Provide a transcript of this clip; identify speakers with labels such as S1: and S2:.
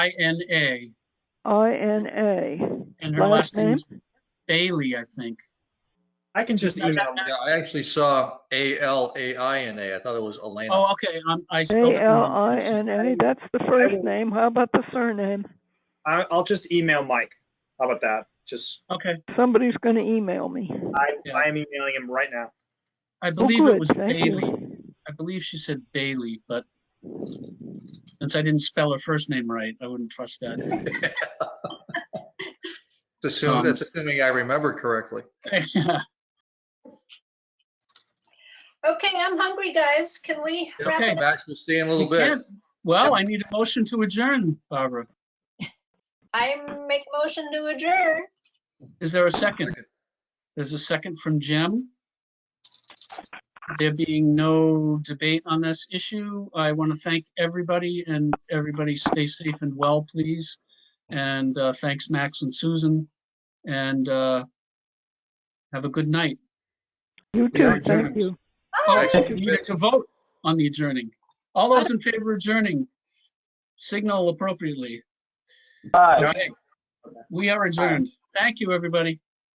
S1: I N A,
S2: I N A.
S1: and her last
S2: Last
S1: name is Bailey, I think.
S3: I can just email.
S4: Yeah, I actually saw A L A I N A. I thought it was Elena.
S1: Oh, okay, um, I spelled it
S2: A L
S1: wrong.
S2: I N A. That's the first name. How about the surname?
S3: I, I'll just email Mike. How about that? Just,
S1: Okay,
S2: Somebody's going to email me.
S3: I,
S1: Yeah.
S3: I am emailing him right now.
S1: I
S2: Oh,
S1: believe it
S2: good.
S1: was
S2: Thank
S1: Bailey.
S2: you.
S1: I believe she said Bailey, but since I didn't spell her first name right, I wouldn't trust that.
S4: That's assuming, that's assuming I remember correctly.
S5: Okay, I'm hungry, guys. Can we wrap
S4: Okay,
S5: it? up?
S4: Max, we'll see you in a little
S1: We
S4: bit.
S1: can't- Well, I need a motion to adjourn, Barbara.
S5: I make motion to adjourn.
S1: Is there a second? There's a second from Jim. There being no debate on this issue, I want to thank everybody and everybody stay safe and well, please. And uh, thanks, Max and Susan. And uh, have a good night.
S2: You
S4: We are
S2: too. Thank
S4: adjourned.
S2: you.
S5: Bye.
S4: Thank
S1: You need to vote on the adjourning. All those in favor of adjourning, signal appropriately.
S3: No,
S1: Okay. We are adjourned. Thank you, everybody.